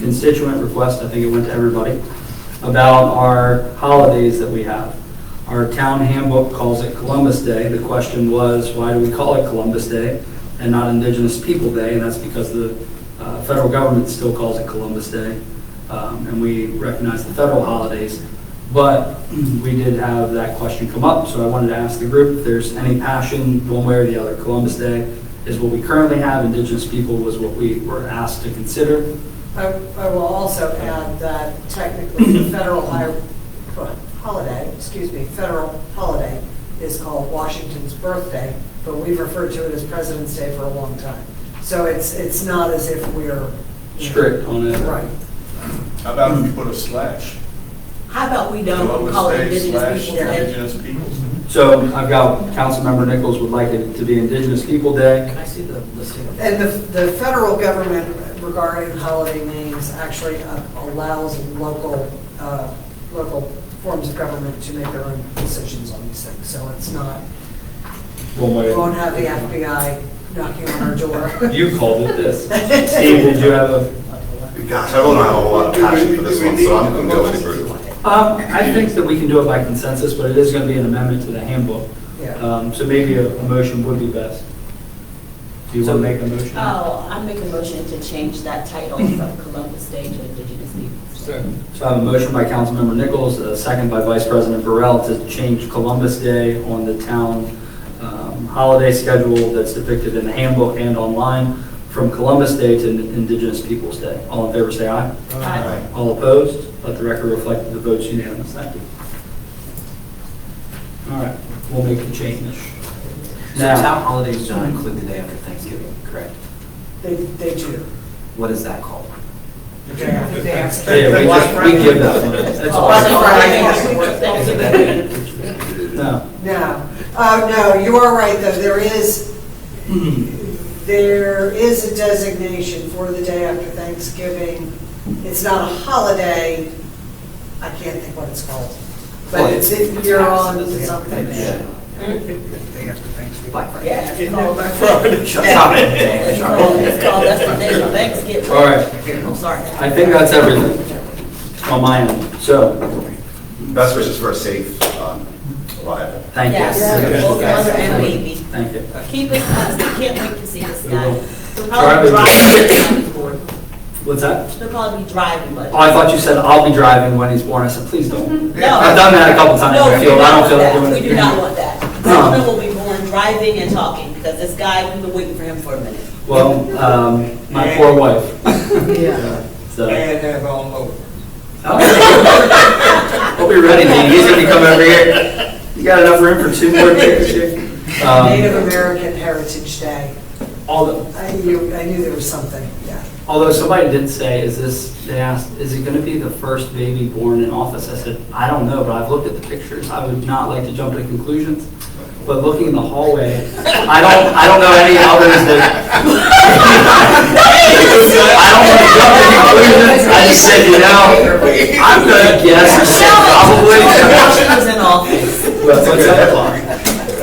constituent request, I think it went to everybody, about our holidays that we have. Our town handbook calls it Columbus Day. The question was, why do we call it Columbus Day and not Indigenous People Day? And that's because the uh, federal government still calls it Columbus Day, um, and we recognize the federal holidays. But we did have that question come up, so I wanted to ask the group if there's any passion one way or the other. Columbus Day is what we currently have, Indigenous People was what we were asked to consider. I I will also add that technically, the federal hi- holiday, excuse me, federal holiday is called Washington's birthday, but we've referred to it as President's Day for a long time. So it's, it's not as if we're. you know, Strict on it. Right. How about if you put a slash? How about we don't Columbus call it Day Indigenous slash People Day? Indigenous peoples. So I've got, Councilmember Nichols would like it to be Indigenous People Day. Can I see the listing of And the, the federal government regarding holiday names actually uh, allows local, uh, local forms of government to make their own decisions on these things. So it's not, One way. we won't have the FBI knocking on our door. You called it this. Steve, did you have a? Gosh, I really don't have a whole lot of passion for this one, so I'm going to go with it. Um, I think that we can do it by consensus, but it is going to be an amendment to the handbook. Yeah. Um, so maybe a, a motion would be best. Do you want to make a motion? Oh, I make a motion to change that title from Columbus Day to Indigenous Peoples. Day. So I have a motion by Councilmember Nichols, a second by Vice President Burrell to change Columbus Day on the town um, holiday schedule that's depicted in the handbook and online from Columbus Day to Indigenous Peoples' Day. All in favor, say aye. Aye. All opposed? Let the record reflect that the vote's unanimous. Thank you. All right, we'll make the change. So Now, town holidays don't include the day after Thanksgiving, correct? They, they do. What is that called? Yeah, they have- yeah, we just, we give that one. That's Oh, all. Black Friday. Is it that? No. No, uh, no, you are right, though, there is, there is a designation for the day after Thanksgiving. It's not a holiday, I can't think what it's called, but it's, it- you're on something. Yeah. Black Friday. Yeah, it's called, Stop it. it's called, that's the day of Thanksgiving. All right. I'm sorry. I think that's everything on my end. So, Best wishes for a safe um, arrival. thank you. Yes, both mother and baby. Thank you. Keep it constant, can't wait to see this guy. They'll Driving. probably be driving when he's born. What's that? They'll probably be driving, but. Oh, I thought you said I'll be driving when he's born. I said, please don't. No. I've done that a couple times. No, I we feel, do I not don't want feel like that. doing it. We do not want that. Children will be born driving and talking, because this guy, we've been waiting for him for a minute. Well, um, my poor wife. So, And that's all over. hope you're ready, Dean. He's gonna come over here. You got enough room for two more pictures here? Native Um, American Heritage Day, although, I knew, I knew there was something, yeah. although somebody did say, is this, they asked, is it gonna be the first baby born in office? I said, I don't know, but I've looked at the pictures. I would not like to jump to conclusions. But looking in the hallway, I don't, I don't know any others that I don't want to jump to conclusions, I just said, you know, I'm gonna guess, I said probably. While she was in office. What's that?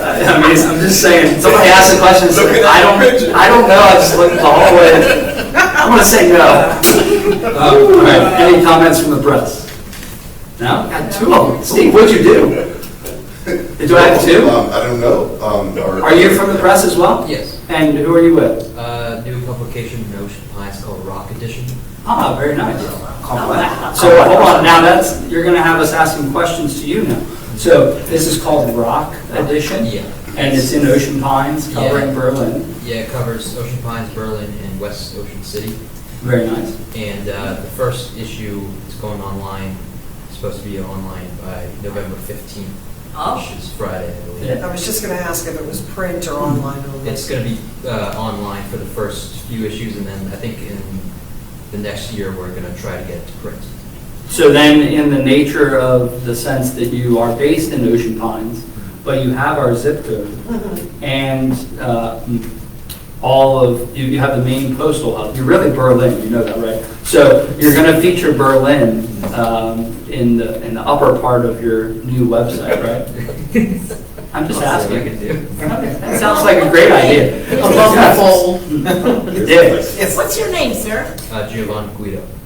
I mean, I'm just saying, somebody asked a question, so I don't, I don't know, I just looked at the hallway, I'm gonna say no. Uh, All right, any comments from the press? No? Got two of them. Steve, what'd you do? Do I have two? Um, I don't know. um, or- Are you from the press as well? Yes. And who are you with? Uh, new publication, Notion Pines, called Rock Edition. Ah, very nice. wow. So hold on, now that's, you're gonna have us asking questions to you now. So this is called Rock Edition? Yeah. And it's in Ocean Pines covering Yeah. Berlin. Yeah, it covers Ocean Pines, Berlin, and West Ocean City. Very nice. And uh, the first issue is going online, it's supposed to be online by November 15th, Oh, which is Friday, I believe. Yeah. I was just gonna ask if it was print or online only. It's going to be uh, online for the first few issues, and then I think in the next year, we're going to try to get it to print. So then, in the nature of the sense that you are based in Ocean Pines, but you have our zip code, and uh, all of, you you have the main postal hub, you're really Berlin, you know that, right? So you're going to feature Berlin um, in the, in the upper part of your new website, right? I'm just I'll see what I asking. can do. That sounds like a great idea. Above the fold. You did. what's your name, sir? Uh, Giovanni Guido.